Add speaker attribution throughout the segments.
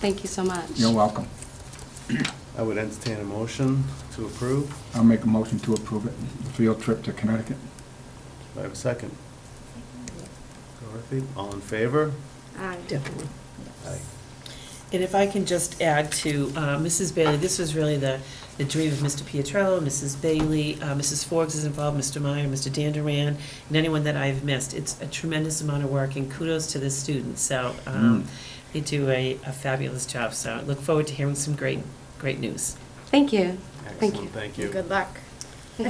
Speaker 1: Thank you so much.
Speaker 2: You're welcome.
Speaker 3: I would entertain a motion to approve.
Speaker 2: I'll make a motion to approve it, field trip to Connecticut.
Speaker 3: Do I have a second? Dorothy, all in favor?
Speaker 1: Aye.
Speaker 4: Definitely.
Speaker 3: Aye.
Speaker 4: And if I can just add to uh, Mrs. Bailey, this was really the, the dream of Mr. Pietrello, Mrs. Bailey, uh, Mrs. Forbes is involved, Mr. Meyer, Mr. Danduran, and anyone that I've missed. It's a tremendous amount of work, and kudos to the students. So um, they do a a fabulous job, so I look forward to hearing some great, great news.
Speaker 1: Thank you. Thank you.
Speaker 3: Excellent, thank you.
Speaker 5: Good luck.
Speaker 4: We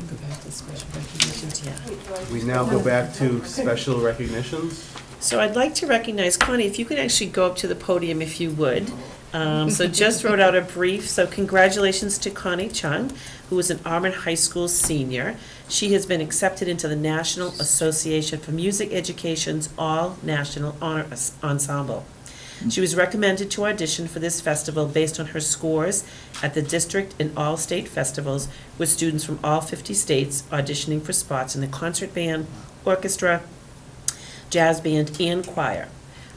Speaker 4: go back to special recognitions, yeah.
Speaker 3: We now go back to special recognitions.
Speaker 4: So I'd like to recognize, Connie, if you could actually go up to the podium if you would. Um, So just wrote out a brief, so congratulations to Connie Chung, who is an Auburn High School senior. She has been accepted into the National Association for Music Education's All National Honor Ens- Ensemble. She was recommended to audition for this festival based on her scores at the district and all state festivals with students from all 50 states auditioning for spots in the concert band, orchestra, jazz band, and choir.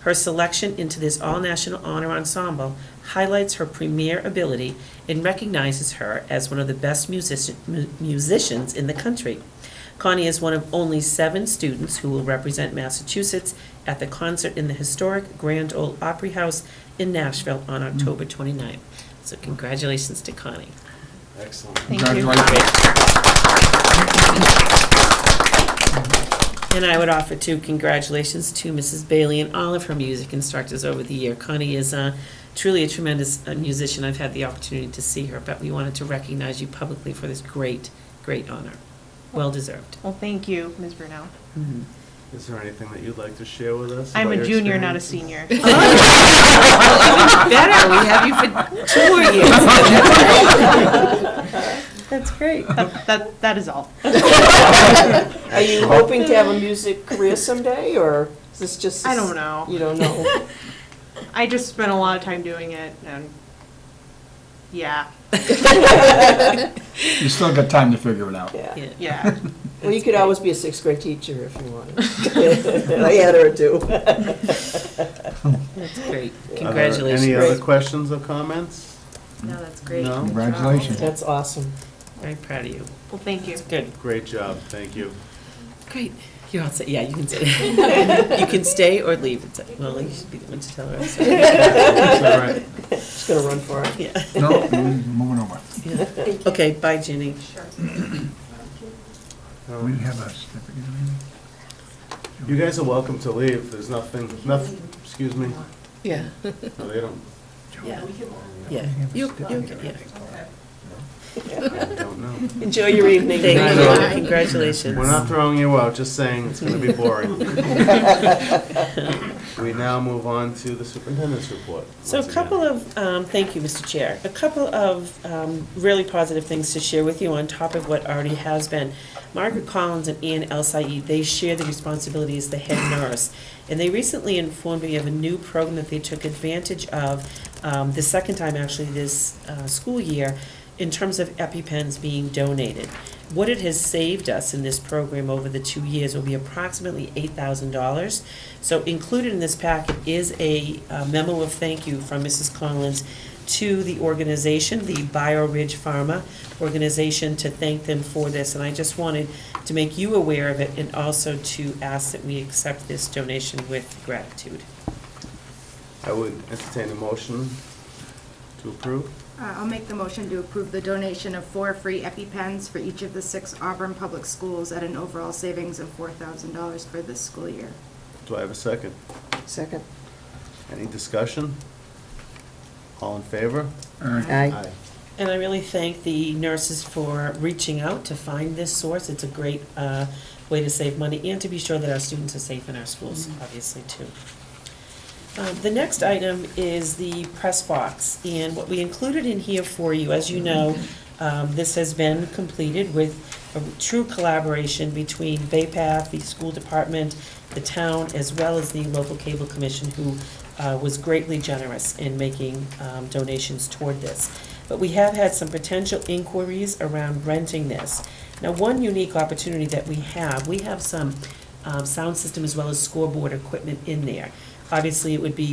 Speaker 4: Her selection into this all-national honor ensemble highlights her premier ability and recognizes her as one of the best musician- mu- musicians in the country. Connie is one of only seven students who will represent Massachusetts at the concert in the historic Grand Ole Opry House in Nashville on October 29th. So congratulations to Connie.
Speaker 3: Excellent.
Speaker 5: Thank you.
Speaker 2: Congratulations.
Speaker 4: And I would offer too, congratulations to Mrs. Bailey and all of her music instructors over the year. Connie is uh, truly a tremendous uh, musician. I've had the opportunity to see her, but we wanted to recognize you publicly for this great, great honor. Well deserved.
Speaker 5: Well, thank you, Ms. Brunel.
Speaker 3: Is there anything that you'd like to share with us?
Speaker 5: I'm
Speaker 3: about
Speaker 5: a
Speaker 3: your
Speaker 5: junior, not a
Speaker 3: experiences?
Speaker 5: senior.
Speaker 4: Better, we have you for two more years.
Speaker 5: That's great. That, that- that is all.
Speaker 6: Are you hoping to have a music career someday, or is this just?
Speaker 5: I don't know.
Speaker 6: You don't know?
Speaker 5: I just spent a lot of time doing it and, yeah,
Speaker 2: You still got time to figure it out.
Speaker 6: Yeah.
Speaker 4: Yeah.
Speaker 5: yeah.
Speaker 6: Well, you could always be a sixth grade teacher if you wanted. I had her do.
Speaker 4: That's
Speaker 3: Are
Speaker 4: great.
Speaker 3: there
Speaker 4: Congratulations.
Speaker 3: Any other questions or comments?
Speaker 1: No, that's
Speaker 3: great. No.
Speaker 2: Congratulations.
Speaker 6: That's awesome.
Speaker 4: Very proud of you.
Speaker 5: Well, thank you.
Speaker 4: Good.
Speaker 3: Great job, thank you.
Speaker 4: Great. You're all set. Yeah, you can stay. You can stay or leave. It's- Well, you should be the one to tell her. I'm sorry.
Speaker 3: It's all right.
Speaker 6: Just gonna run for it.
Speaker 4: Yeah.
Speaker 2: No, mm, moving over.
Speaker 4: Yeah. Okay, bye, Ginny.
Speaker 3: All
Speaker 2: We
Speaker 3: right.
Speaker 2: have a certificate or anything?
Speaker 3: You guys are welcome to leave, there's nothing, nothing, excuse me,
Speaker 4: Yeah.
Speaker 3: No, they don't,
Speaker 4: Yeah. Yeah. You, you, yeah.
Speaker 3: don't know.
Speaker 4: Enjoy your evening. Thank
Speaker 3: Thank
Speaker 4: you.
Speaker 3: you.
Speaker 4: Congratulations.
Speaker 3: We're not throwing you out, just saying it's gonna be boring. We now move on to the superintendent's report.
Speaker 4: So a
Speaker 3: once
Speaker 4: couple
Speaker 3: again.
Speaker 4: of, um, thank you, Mr. Chair, a couple of um, really positive things to share with you on top of what already has been. Margaret Collins and Ian El Said, they share the responsibility as the head nurse. And they recently informed me of a new program that they took advantage of, um, the second time actually this uh, school year, in terms of EpiPens being donated. What it has saved us in this program over the two years will be approximately eight thousand dollars. So included in this packet is a uh, memo of thank you from Mrs. Collins to the organization, the Bio Ridge Pharma organization, to thank them for this. And I just wanted to make you aware of it and also to ask that we accept this donation with gratitude.
Speaker 3: I would entertain a motion to approve.
Speaker 7: Uh, I'll make the motion to approve the donation of four free EpiPens for each of the six Auburn Public Schools at an overall savings of $4,000 for this school year.
Speaker 3: Do I have a second?
Speaker 6: Second.
Speaker 3: Any discussion? All in favor?
Speaker 2: All right.
Speaker 6: Aye.
Speaker 4: And I really thank the nurses for reaching out to find this source. It's a great uh, way to save money and to be sure that our students are safe in our schools, obviously, too. Um, The next item is the press box, and what we included in here for you, as you know, um, this has been completed with a true collaboration between BayPath, the school department, the town, as well as the local cable commission, who uh, was greatly generous in making um, donations toward this. But we have had some potential inquiries around renting this. Now, one unique opportunity that we have, we have some um, sound system as well as scoreboard equipment in there. Obviously, it would be